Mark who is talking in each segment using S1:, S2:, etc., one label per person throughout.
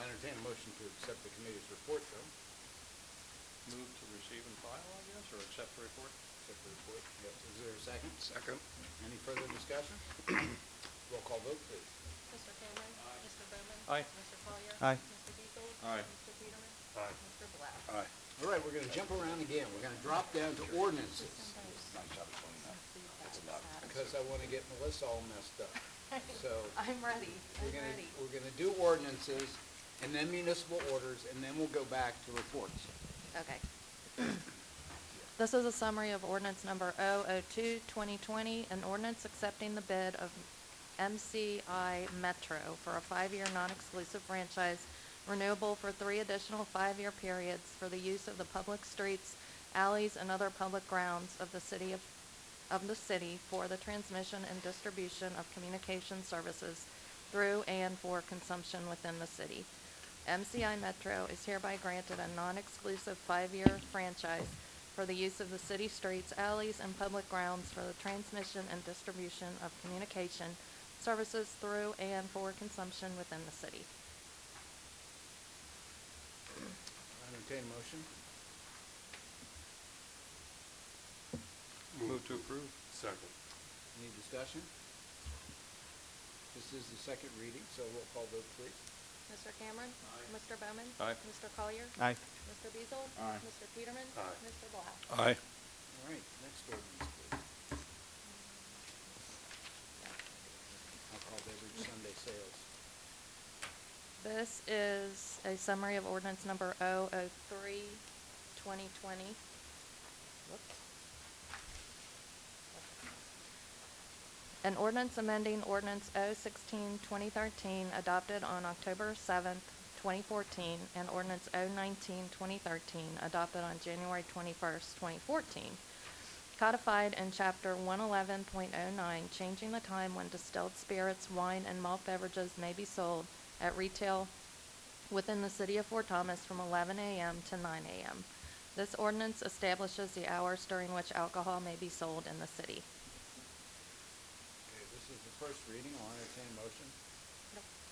S1: entertain a motion to accept the committee's report, though.
S2: Move to receive and file, I guess, or accept the report?
S1: Accept the report. Yep. Is there a second?
S2: Second.
S1: Any further discussion? Roll call vote, please.
S3: Mr. Cameron. Mr. Bowman.
S2: Aye.
S3: Mr. Collier.
S4: Aye.
S3: Mr. Beagle.
S2: Aye.
S3: Mr. Peterman.
S2: Aye.
S3: Mr. Black.
S2: Aye.
S1: All right, we're gonna jump around again. We're gonna drop down to ordinances, because I wanna get Melissa all messed up. So,
S3: I'm ready,
S1: we're
S3: I'm
S1: gonna,
S3: ready.
S1: we're gonna do ordinances, and then municipal orders, and then we'll go back to reports.
S3: Okay. This is a summary of ordinance number 002-2020, an ordinance accepting the bid of MCI Metro for a five-year non-exclusive franchise renewable for three additional five-year periods for the use of the public streets, alleys, and other public grounds of the city of, of the city for the transmission and distribution of communication services through and for consumption within the city. MCI Metro is hereby granted a non-exclusive five-year franchise for the use of the city streets, alleys, and public grounds for the transmission and distribution of communication services through and for consumption within the city.
S1: Entertain a motion?
S2: Move to approve? Second.
S1: Any discussion? This is the second reading, so roll call vote, please.
S3: Mr. Cameron.
S2: Aye.
S3: Mr. Bowman.
S2: Aye.
S3: Mr. Collier.
S4: Aye.
S3: Mr. Beazle.
S1: Aye.
S3: Mr. Peterman.
S2: Aye.
S3: Mr. Black.
S2: Aye.
S1: All right, next ordinance, please. Alcohol beverage Sunday sales.
S3: This is a summary of ordinance number 003-2020. Whoops. An ordinance amending ordinance 016-2013, adopted on October seventh, twenty fourteen, and ordinance 019-2013, adopted on January twenty-first, twenty fourteen, codified in chapter one eleven point oh nine, changing the time when distilled spirits, wine, and malt beverages may be sold at retail within the city of Fort Thomas from eleven AM to nine AM. This ordinance establishes the hours during which alcohol may be sold in the city.
S1: Okay, this is the first reading, I'll entertain a motion.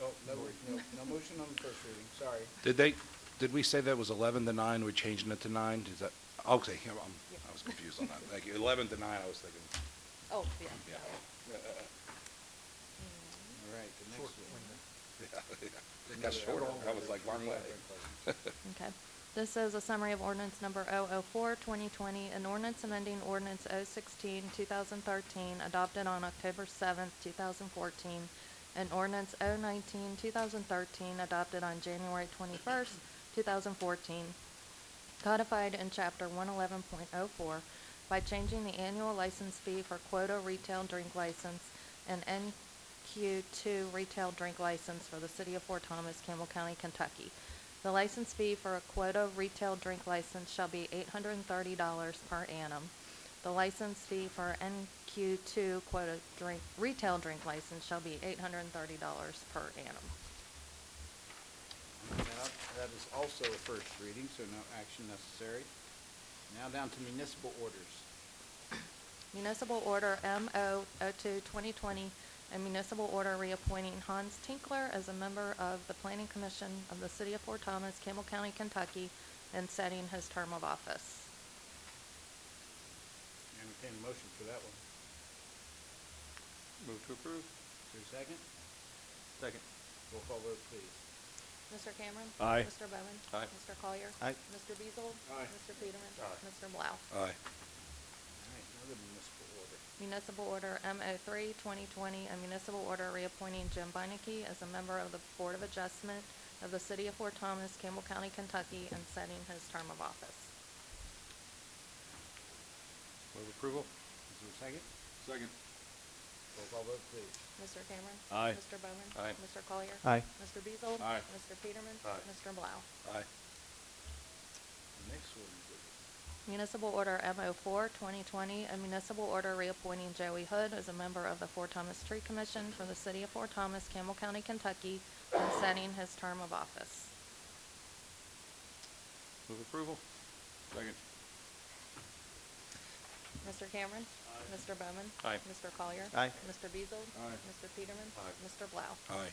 S1: Oh, no, no, no motion on the first reading, sorry.
S5: Did they, did we say that was 11 to 9, we're changing it to 9? Is that, okay, I'm- I'm- I was confused on that. Thank you. 11 to 9, I was thinking,
S3: Oh, yeah.
S5: yeah.
S1: All right, the next one.
S5: Got shorter. That was like one way.
S3: Okay. This is a summary of ordinance number 004-2020, an ordinance amending ordinance 016-2013, adopted on October seventh, two thousand fourteen, and ordinance 019-2013, adopted on January twenty-first, two thousand fourteen, codified in chapter one eleven point oh four by changing the annual license fee for quota retail drink license and NQ two retail drink license for the city of Fort Thomas, Campbell County, Kentucky. The license fee for a quota retail drink license shall be eight hundred and thirty dollars per annum. The license fee for NQ two quota drink, retail drink license shall be eight hundred and thirty dollars per annum.
S1: Now, That is also a first reading, so no action necessary. Now down to municipal orders.
S3: Municipal Order MO 02-2020, a municipal order reappointing Hans Tinkler as a member of the Planning Commission of the City of Fort Thomas, Campbell County, Kentucky, and setting his term of office.
S1: Entertain a motion for that one.
S2: Move to
S1: Is
S2: approve?
S1: there a second?
S2: Second.
S1: Roll call vote, please.
S3: Mr. Cameron.
S2: Aye.
S3: Mr. Bowman.
S2: Aye.
S3: Mr. Collier.
S4: Aye.
S3: Mr. Beazle.
S1: Aye.
S3: Mr. Peterman.
S2: Aye.
S3: Mr. Blau.
S5: Aye.
S1: All right, another municipal order.
S3: Municipal Order M03-2020, a municipal order reappointing Jim Beinecke as a member of the Board of Adjustment of the City of Fort Thomas, Campbell County, Kentucky, and setting his term of office.
S2: Move approval?
S1: Is there a second?
S2: Second.
S1: Roll call vote, please.
S3: Mr. Cameron.
S2: Aye.
S3: Mr. Bowman.
S2: Aye.
S3: Mr. Collier.
S4: Aye.
S3: Mr. Beazle.
S2: Aye.
S3: Mr. Peterman.
S2: Aye.
S3: Mr. Blau.
S5: Aye.
S1: The next ordinance is
S3: Municipal Order M04-2020, a municipal order reappointing Joey Hood as a member of the Fort Thomas Tree Commission for the City of Fort Thomas, Campbell County, Kentucky, and setting his term of office.
S2: Move approval? Second.
S3: Mr. Cameron. Mr. Bowman.
S2: Aye.
S3: Mr. Collier.
S4: Aye.
S3: Mr. Beazle.
S2: Aye.
S3: Mr. Peterman.
S2: Aye.
S3: Mr. Blau.
S5: Aye.